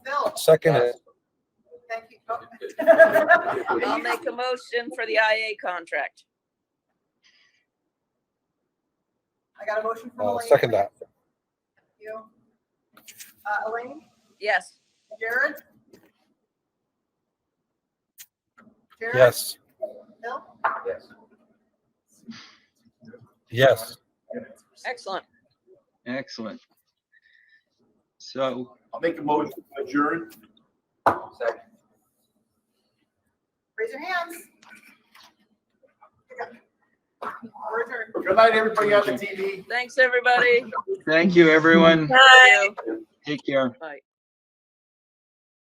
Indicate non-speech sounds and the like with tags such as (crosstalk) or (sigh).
I'll second it. Thank you. Coleman. I'll make a motion for the IA contract. (laughs) I got a motion from I'll Elaine. Uh, second that. Thank you. Uh, Elaine, Yes. Jared? Jared? Yes, Bill? yes. Excellent. Excellent. So, I'll make a motion to adjourn. Raise your hands. We're adjourned. Good night, everybody on the TV. Thanks, everybody. thank you, everyone. Bye. Take care. Bye.